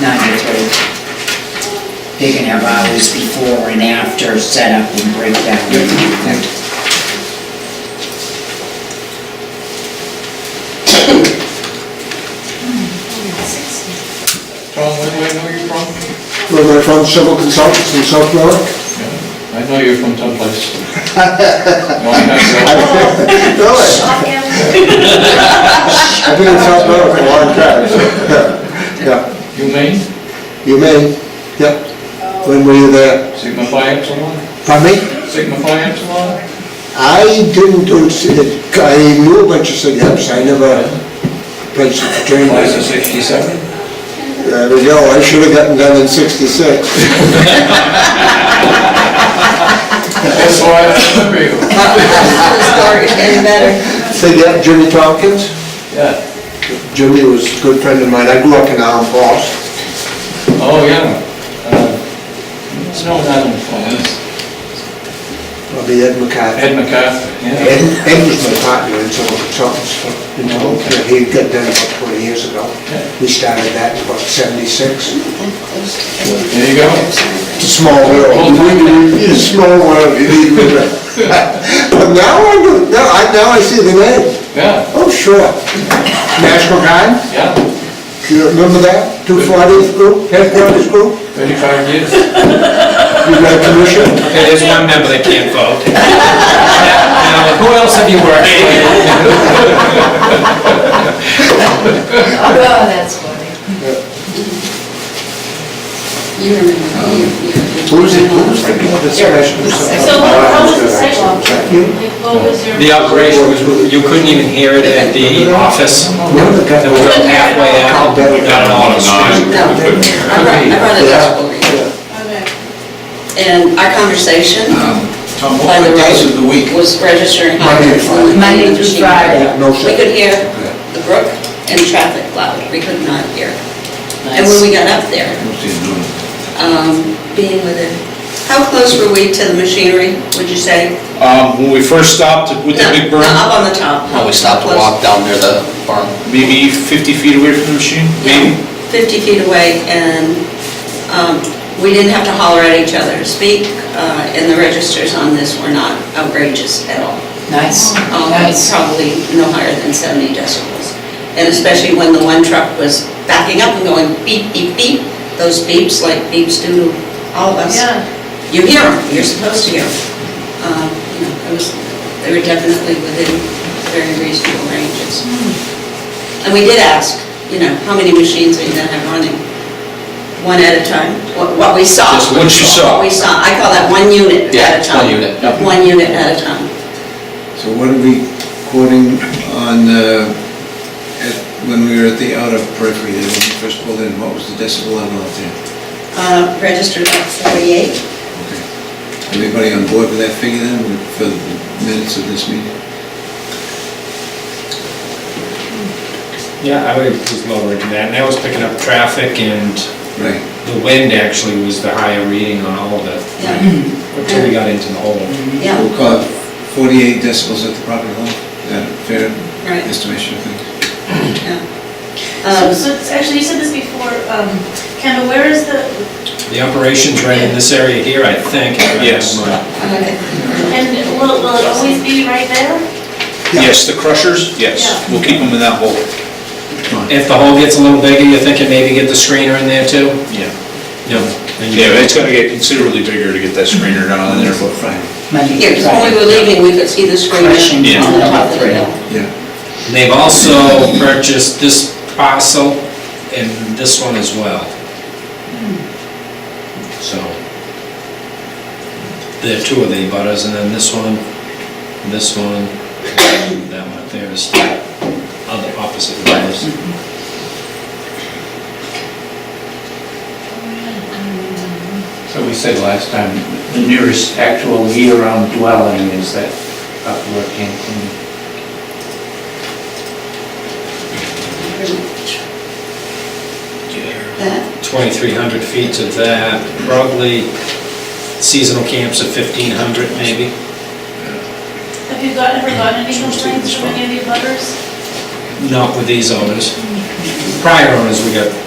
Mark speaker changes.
Speaker 1: nine to three. They can have hours before and after setup and breakdown.
Speaker 2: Tom, where do I know you're from?
Speaker 3: Where am I from? Civil Consultants in South Berwick.
Speaker 2: I know you're from someplace. No, I have no-
Speaker 3: Really? I've been in South Berwick for a long time. so, yeah. Yeah,
Speaker 2: You mean,
Speaker 3: you may, yeah. When were you there?
Speaker 2: Sigma Phi Epsilon?
Speaker 3: Pardon me?
Speaker 2: Sigma Phi Epsilon?
Speaker 3: I didn't, do it. I knew a bunch of syntax, I never played some Uh, fraternity.
Speaker 2: Class of sixty-seven?
Speaker 3: There we go, I should have gotten done in sixty-six.
Speaker 2: That's why I remember you.
Speaker 4: Any better?
Speaker 3: So, yeah, Jimmy Tompkins?
Speaker 2: Yeah.
Speaker 3: Jimmy was a good friend of mine, I grew up in Allen Falls.
Speaker 2: Oh, yeah. Uh, It's no Adam Falls.
Speaker 3: Probably Ed McCarthy.
Speaker 2: Ed McCarthy, yeah.
Speaker 3: Ed, Ed was my partner in Civil Consultants, for- you know, he got done about twenty years ago. We started that in about seventy-six.
Speaker 2: There you go.
Speaker 3: It's a small world, it's a small world, you need me to- But now I, know- now I, now I see the name,
Speaker 2: Yeah,
Speaker 3: oh, sure. National Guard,
Speaker 2: yeah.
Speaker 3: do you remember that? Two forties group, headquarters group,
Speaker 2: Thirty-five years.
Speaker 3: you got a commission?
Speaker 5: Okay, there's one member that can't vote. Now, who else have you worked with?
Speaker 4: Oh, that's funny. You remember, you, you.
Speaker 3: Who's it, who's the people that smashed themselves?
Speaker 6: So what, how was the sidewalk? Like, what was your?
Speaker 5: The operation was, you couldn't even hear it at the office.
Speaker 3: One of the guys-
Speaker 5: They were halfway out, got it all on the street.
Speaker 4: No, I brought, I brought it up.
Speaker 6: Okay.
Speaker 4: And our conversation
Speaker 7: Tom,
Speaker 4: by
Speaker 7: what are the
Speaker 4: the
Speaker 7: days of the
Speaker 4: road
Speaker 7: week?
Speaker 4: was registering.
Speaker 3: Uh, Monday through Friday.
Speaker 1: Monday through Friday.
Speaker 3: No, sir.
Speaker 4: We could hear the brook and traffic loud, we could not hear. And when we got up there, um, being within, how close were we to the machinery, would you say?
Speaker 8: Um, when we first stopped with the
Speaker 4: No,
Speaker 8: big
Speaker 4: no,
Speaker 8: burn,
Speaker 4: Up on the top.
Speaker 7: No, we stopped to
Speaker 4: Close.
Speaker 7: walk down near the farm.
Speaker 8: maybe fifty feet away from the machine, maybe?
Speaker 4: 50 feet away, and um, we didn't have to holler at each other to speak, uh, and the registers on this were not outrageous at all.
Speaker 1: Nice,
Speaker 4: Um,
Speaker 1: nice.
Speaker 4: Probably no higher than 70 decibels. And especially when the one truck was backing up and going beep, beep, beep, those beeps like beeps do to all of us.
Speaker 6: Yeah,
Speaker 4: You hear them, you're supposed to hear them. Um, you know, it was, they were definitely within very reasonable ranges. And we did ask, you know, how many machines are you gonna have running? One at a time, what what we saw.
Speaker 8: Just what you saw.
Speaker 4: What we saw, I call that one unit
Speaker 7: Yeah,
Speaker 4: at a
Speaker 7: it's
Speaker 4: time.
Speaker 7: one unit, yeah.
Speaker 4: One unit at a time.
Speaker 9: So what are we quoting on, uh, at- when we were at the outer periphery, there, when we first pulled in, what was the decibel level out there?
Speaker 4: Uh, Registered at 48.
Speaker 9: Everybody on board with that figure then, for the minutes of this meeting?
Speaker 5: Yeah, I would- was lowering that, and that was picking up traffic, and
Speaker 9: Right.
Speaker 5: the wind actually was the higher reading on all of it,
Speaker 4: Yeah,
Speaker 5: Mm-hmm. until we got into the hole.
Speaker 4: yeah,
Speaker 9: We'll call it 48 decibels at the property level, is that a fair
Speaker 4: right,
Speaker 9: estimation, I think?
Speaker 4: yeah.
Speaker 6: so,
Speaker 4: Um,
Speaker 6: so, it's- actually, you said this before, um, Kendall, where is the,
Speaker 5: The operation's right in this area here, I think.
Speaker 8: Yes.
Speaker 4: okay.
Speaker 6: and will, will it always be right there?
Speaker 8: Yes, the crushers, yes,
Speaker 6: Yeah.
Speaker 8: we'll keep them in that hole,
Speaker 5: If the hole gets a little bigger, you're thinking maybe get the screener in there too?
Speaker 8: yeah.
Speaker 5: No. Then you-
Speaker 8: Yeah, but it's gonna get considerably bigger to get that screener down in there, but
Speaker 1: Monday
Speaker 4: Yeah,
Speaker 1: through
Speaker 4: 'cause when we
Speaker 1: Friday.
Speaker 4: were leaving, we could see the screen
Speaker 1: Crushing
Speaker 8: Yeah.
Speaker 4: on the top of the
Speaker 1: Three.
Speaker 4: hill.
Speaker 9: Yeah.
Speaker 5: They've also purchased this parcel and this one as well. So, there are two of the butters, and then this one, this one, and that one up there is the other opposite of ours.
Speaker 2: So we said last time,
Speaker 10: The nearest actual year-round dwelling is that upper Hampton.
Speaker 4: That,
Speaker 5: 2,300 feet to that, probably seasonal camps of 1,500 maybe.
Speaker 6: Have you got, ever gotten any complaints from any of the butters?
Speaker 5: Not with these owners. Prior owners, we got